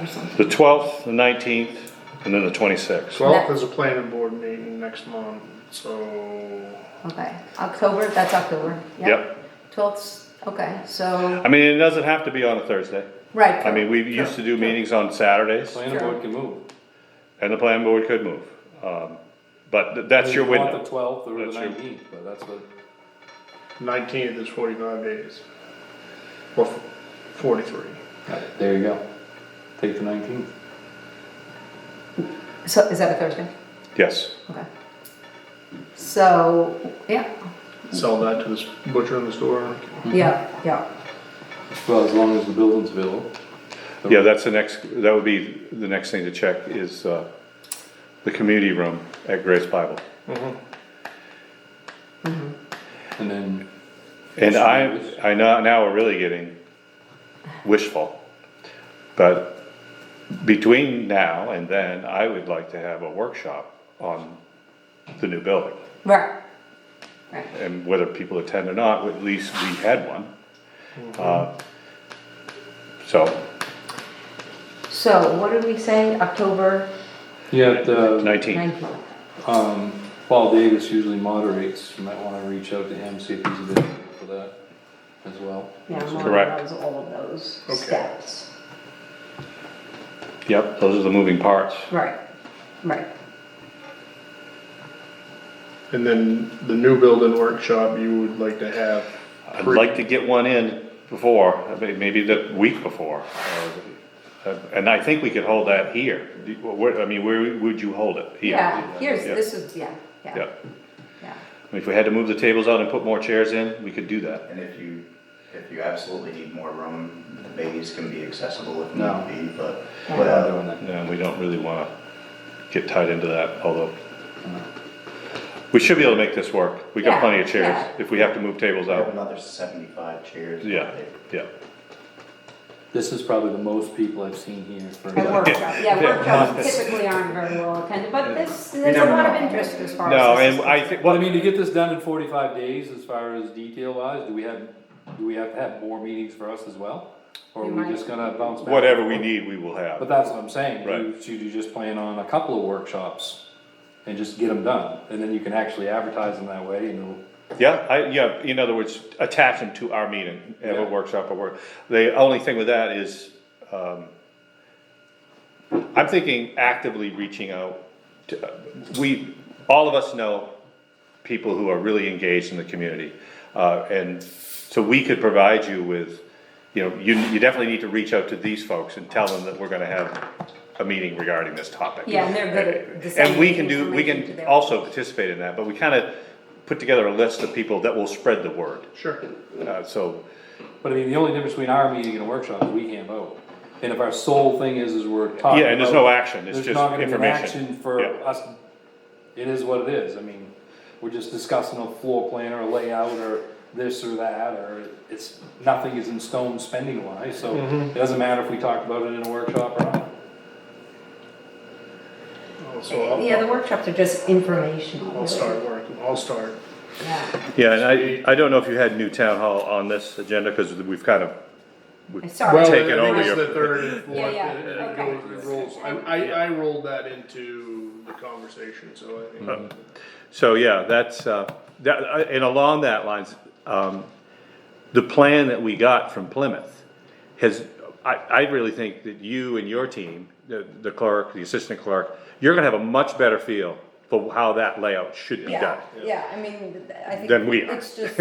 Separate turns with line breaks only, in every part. or something.
The twelfth, the nineteenth, and then the twenty-sixth.
Twelfth is a planning board meeting next month, so
Okay, October, that's October.
Yep.
Twelfth, okay, so,
I mean, it doesn't have to be on a Thursday.
right.
I mean, we used to do meetings on Saturdays,
Planning board can move.
and the planning board could move. Um, But th- that's your
You want
window.
The twelfth or the
That's your-
nineteenth, but that's what,
nineteenth is forty-nine days. Or f- forty-three.
there you go. Take the nineteenth.
So, is that a Thursday?
Yes.
Okay. So, yeah,
Sell that to this butcher in the store.
yeah, yeah,
Well, as long as the building's available.
Yeah, that's the next, that would be the next thing to check is uh, the community room at Grace Bible.
And then,
And I, I know, now we're really getting wishful. But between now and then, I would like to have a workshop on the new building.
right, right.
and whether people attend or not, at least we had one. Uh, So,
So, what did we say, October
yeah, the,
nineteen,
nineteenth?
um, Paul Davis usually moderates, you might wanna reach out to him, see if he's available for that as well.
Yeah,
Correct.
Molly knows all of those
Okay.
steps.
yep, those are the moving parts.
Right, right.
And then the new building workshop you would like to have.
I'd
pre-
like to get one in before, I mean, maybe the week before. or- And I think we could hold that here. Do- where- I mean, where would you hold it? Here.
Yeah, here's,
Yeah.
this is, yeah,
Yeah,
yeah, yeah.
I mean, if we had to move the tables out and put more chairs in, we could do that.
And if you, if you absolutely need more room, the bays can be accessible if need be, but, but,
Without
uh,
doing that.
And we don't really wanna get tied into that, although. We should be able to make this work. We
Yeah,
got plenty of chairs,
yeah.
if we have to move tables
we
out.
have another seventy-five chairs.
Yeah, yeah.
This is probably the most people I've seen here for.
And workshop, yeah, workshops typically aren't very well attended, but this, there's a
never
lot of
know.
interest as far as.
No,
this
and
is
I think,
Well, I
well,
mean, to get this done in forty-five days, as far as detail wise, do we have, do we have to have more meetings for us as well? Or are
We
we
might.
just gonna bounce back?
whatever we need, we will
But
have.
that's what I'm saying,
Right.
you, should you just plan on a couple of workshops and just get them done, and then you can actually advertise them that way, and it'll-
Yeah, I, yeah, in other words, attach them to our meeting, have a
Yeah.
workshop or work. The only thing with that is, um, I'm thinking actively reaching out to, we, all of us know people who are really engaged in the community. Uh, and so we could provide you with, you know, you, you definitely need to reach out to these folks and tell them that we're gonna have a meeting regarding this topic.
Yeah, and they're good at
And we can
disseminating
do, we
information to
can
their-
also participate in that, but we kinda put together a list of people that will spread the word.
Sure.
Uh, so,
but I mean, the only difference between our meeting and a workshop is we can't vote. And if our sole thing is, is we're talking
yeah, and there's no
about-
action, it's
There's
just
not gonna be an
information.
action for
Yeah.
us, it is what it is, I mean, we're just discussing a floor plan or a layout or this or that, or it's, nothing is in stone spending wise, so it doesn't matter if we talk about it in a workshop or not.
So I'll,
Yeah, the workshops are just informational.
I'll start working, I'll start.
Yeah,
Yeah, and I, I don't know if you had new town hall on this agenda, cause we've kind of,
I started.
Well,
Take it
I think
over
it's
your-
The third and fourth. uh,
Yeah, yeah,
it- it
okay.
goes- it rolls. I, I, I rolled that into the conversation, so I
Mm-hmm.
think.
So, yeah, that's, uh, that, uh, and along that lines, um, the plan that we got from Plymouth has, I, I really think that you and your team, the, the clerk, the assistant clerk, you're gonna have a much better feel for how that layout should be
Yeah,
done.
yeah, I mean, I think.
Than we are.
It's just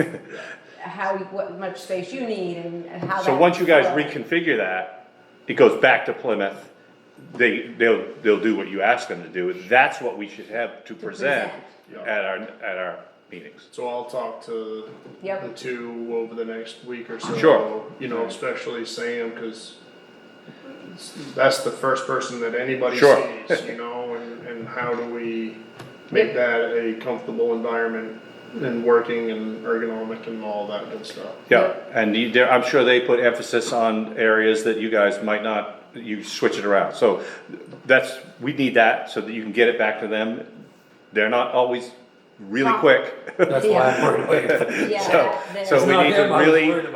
how, what much space you need and and how.
So
that
once you guys
flow.
reconfigure that, it goes back to Plymouth, they, they'll, they'll do what you ask them to do, that's what we should have to present
present.
at our, at our meetings.
So I'll talk to
Yep.
the two over the next week or so.
Sure.
You know, especially Sam, because that's the first person that anybody
Sure.
sees, you know, and, and how do we make that a comfortable environment and working and ergonomic and all that good stuff.
Yeah, and you, there- I'm sure they put emphasis on areas that you guys might not, you switch it around, so that's, we need that, so that you can get it back to them. They're not always really
Huh.
quick,
That's why I'm worried about it.
Yeah.
so,
that-
so
It's
we
not
need to
them I was
really.
worried about.